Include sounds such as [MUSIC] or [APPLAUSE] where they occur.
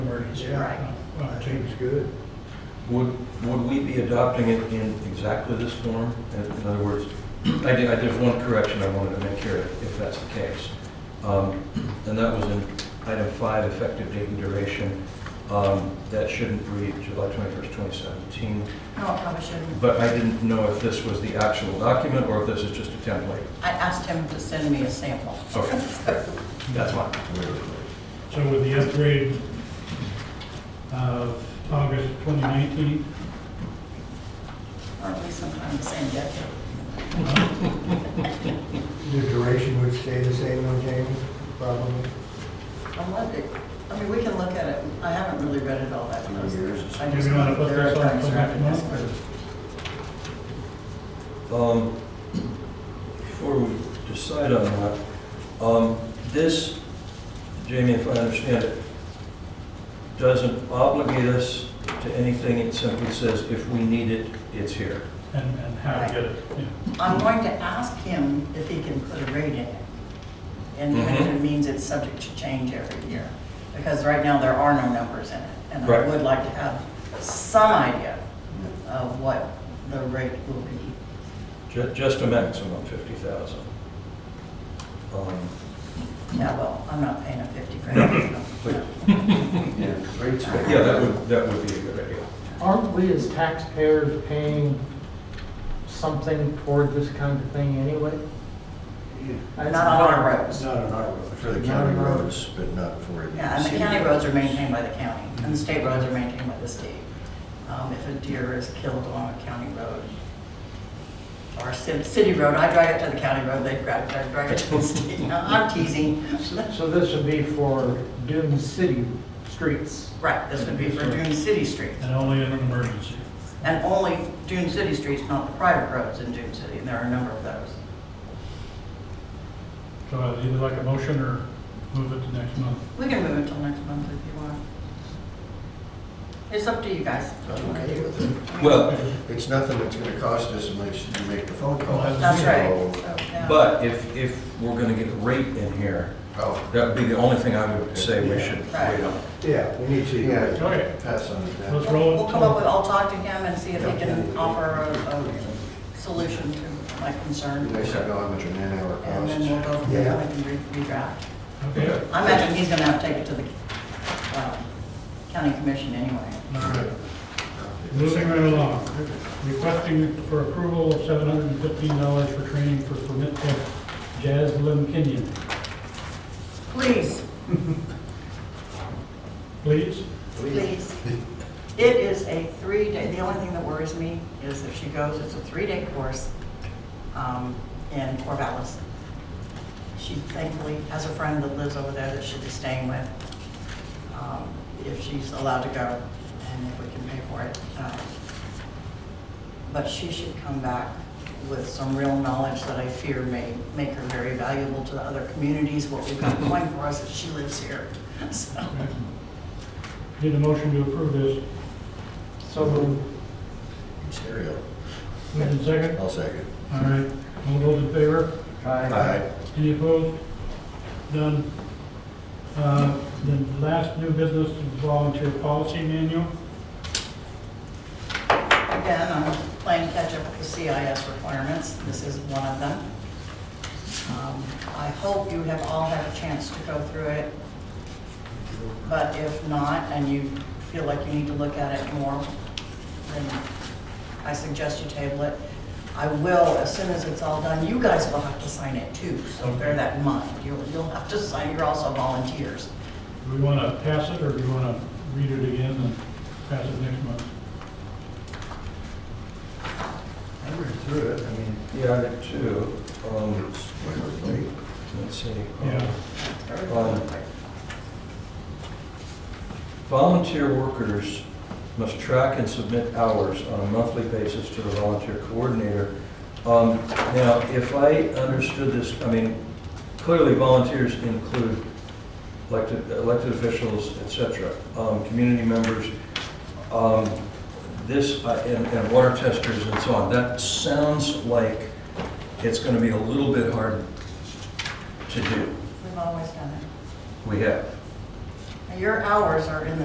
is Yeah, right. I think it's good. Would, would we be adopting it in exactly this form? In in other words, I did, I did one correction I wanted to make here, if that's the case. Um, And that was in item five, effective date and duration. Um, That shouldn't read July 21st, 2017. No, I probably shouldn't. But I didn't know if this was the actual document or if this is just a template. I asked him to send me a sample. Okay, that's fine. So with the upgrade of August 2019, Or at least sometime the same day. The duration would stay the same on Jamie, probably. I wonder, I mean, we can look at it. I haven't really read it all that closely. I do just we know want to put there are this on things for that next I month? missed. or- Um, Before we decide on that, um, this, Jamie, if I understand it, doesn't obligate us to anything. It simply says if we need it, it's here. And, and how to get it, yeah. I'm going to ask him if he can put a rate in it. And even if it means it's subject to change every year. Because right now, there are no numbers in it. And I Right. would like to have some idea of what the rate will be. Ju- Just a maximum 50,000. Um, Yeah, well, I'm not paying a 50 grand. Please. Yeah, rates but Yeah, that would, that would be a good idea. Aren't we as taxpayers paying something toward this kind of thing anyway? Not on our roads. Not on our road. For the county roads, but not for the. Yeah, and the city county roads are maintained by the county, and the state roads are maintained by the state. Um, If a deer is killed on a county road, or a ci- city road, I drag it to the county road, they drag it, I drag it to the state. No, I'm teasing. So this would be for Dune City streets. Right, this would be for Dune City Street, And only in an emergency. and only Dune City Streets, not the private roads in Dune City, and there are a number of those. So I'd either like a motion or move it to next month. We can move it till next month if you want. It's up to you guys. I'm okay with it. Well, It's nothing that's gonna cost us unless you make the phone call. That's right. So, uh, So, yeah. but if, if we're going to get a rate in here, Oh, that would be the only thing I would say we should wait on. Yeah, we need to. yeah, Okay. pass on to that. Let's roll it. We'll come up with, I'll talk to him and see if he can offer a, a solution to my concern. They should go on with your man hour And then we'll costs. go from there, we can re- redraft. Okay. I imagine he's gonna have to take it to the, um, county commission anyway. All right. Moving right along. Requesting for approval of seven hundred and fifteen dollars for training for permit tech Jaslyn Kenyon. Please, Please? please. It is a three-day, the only thing that worries me is if she goes, it's a three-day course, um, in Corvallis. She thankfully has a friend that lives over there that she'll be staying with, um, if she's allowed to go and if we can pay for it. Um, But she should come back with some real knowledge that I fear may make her very valuable to the other communities. What we've got going for us is she lives here, [LAUGHS] so. Need a motion to approve this. So moved. Stereo, Move in second. I'll second. All right. All those in favor? Aye. Any opposed? None. Uh, The last new business is volunteer policy manual. Again, I'm playing catch up with the CIS requirements. This is one of them. Um, I hope you have all had a chance to go through it. But if not, and you feel like you need to look at it more, then I suggest you table it. I will, as soon as it's all done, you guys will have to sign it too, so bear that in mind. You'll, you'll have to sign, you're also volunteers. Do we want to pass it, or do we want to read it again and pass it next month? I read through it, I mean. Yeah, I did too. Um, it's whatever, like, Let's see. Yeah. Um, Volunteer workers must track and submit hours on a monthly basis to the volunteer coordinator. Um, Now, if I understood this, I mean, clearly volunteers include elected, elected officials, et cetera, um, community members, um, this, uh, and, and water testers and so on. That sounds like it's gonna be a little bit hard to do. We've always done it. We have. Now, Your hours are in the